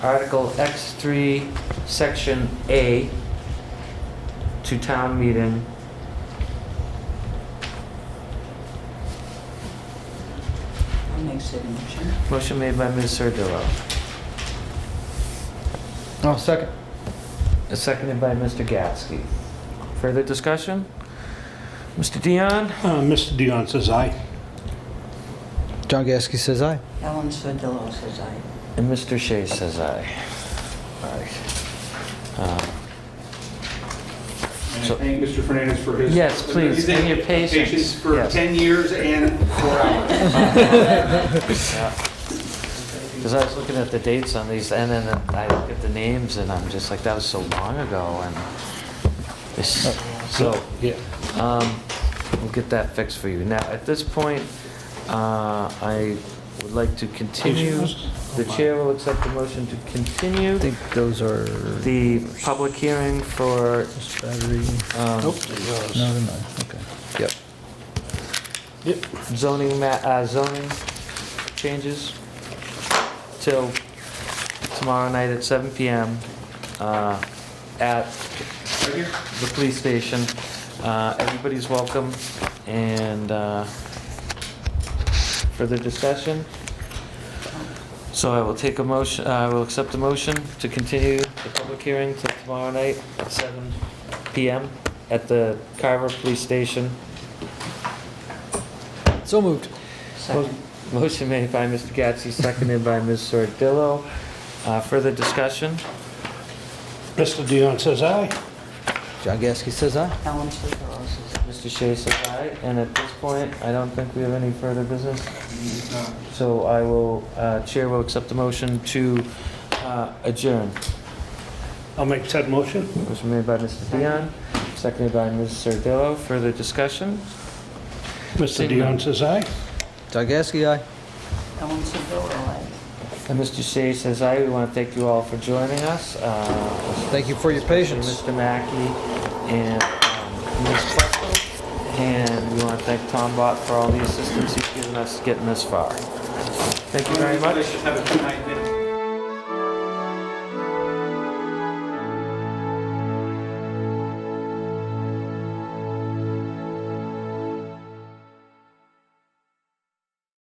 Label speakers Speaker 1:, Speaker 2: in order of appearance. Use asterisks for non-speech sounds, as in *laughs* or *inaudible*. Speaker 1: Article X3, Section A, to town meeting.
Speaker 2: I'll make said motion.
Speaker 1: Motion made by Ms. Sardillo,
Speaker 3: Oh, second.
Speaker 1: and seconded by Mr. Gatsky. Further discussion? Mr. Dion?
Speaker 4: Uh, Mr. Dion says aye.
Speaker 3: John Gasky says aye.
Speaker 2: Ellen Sordillo says aye.
Speaker 1: And Mr. Shea says aye. All right. Uh,
Speaker 5: And
Speaker 1: So-
Speaker 5: I thank Mr. Fernandez for his.
Speaker 1: Yes, please,
Speaker 5: his
Speaker 1: and your patience,
Speaker 5: for
Speaker 1: yes.
Speaker 5: 10 years and
Speaker 1: *laughs*
Speaker 5: four hours.
Speaker 1: *laughs* Because I was looking at the dates on these, and then I look at the names, and I'm just like, that was so long ago, and this, so,
Speaker 4: Oh, Yeah.
Speaker 1: um, we'll get that fixed for you. Now, at this point, uh, I would like to continue, the chair will accept the motion to continue
Speaker 3: I think those are
Speaker 1: the public hearing for,
Speaker 3: this battery.
Speaker 1: um,
Speaker 4: Nope, it
Speaker 3: No,
Speaker 4: goes.
Speaker 3: never mind. Okay. Yep.
Speaker 4: Yep.
Speaker 1: zoning ma, uh, zoning changes till tomorrow night at 7 PM, uh, at
Speaker 5: Right here?
Speaker 1: the police station. Uh, Everybody's welcome, and uh, further discussion? So I will take a motion, uh, I will accept a motion to continue the public hearing till tomorrow night at 7 PM at the Carver Police Station.
Speaker 3: So moved.
Speaker 2: Second.
Speaker 1: Motion made by Mr. Gatsby, seconded by Ms. Sordillo. Uh, Further discussion?
Speaker 4: Mr. Dion says aye.
Speaker 3: John Gasky says aye.
Speaker 2: Ellen Sordillo says aye.
Speaker 1: Mr. Shea says aye, and at this point, I don't think we have any further business. So I will, uh, Chair will accept the motion to uh, adjourn.
Speaker 4: I'll make said motion.
Speaker 1: Motion made by Mr. Dion, seconded by Ms. Sardillo. Further discussion?
Speaker 4: Mr.
Speaker 1: Same.
Speaker 4: Dion says aye.
Speaker 3: John Gasky aye.
Speaker 2: Ellen Sordillo, aye.
Speaker 1: And Mr. Shea says aye. We want to thank you all for joining us. uh,
Speaker 3: Thank you for your patience.
Speaker 1: Mr. Mackey and um, Ms. Plesko. And we want to thank Tom Bott for all the assistance he's given us getting this far. Thank you very much.
Speaker 5: Have a good night.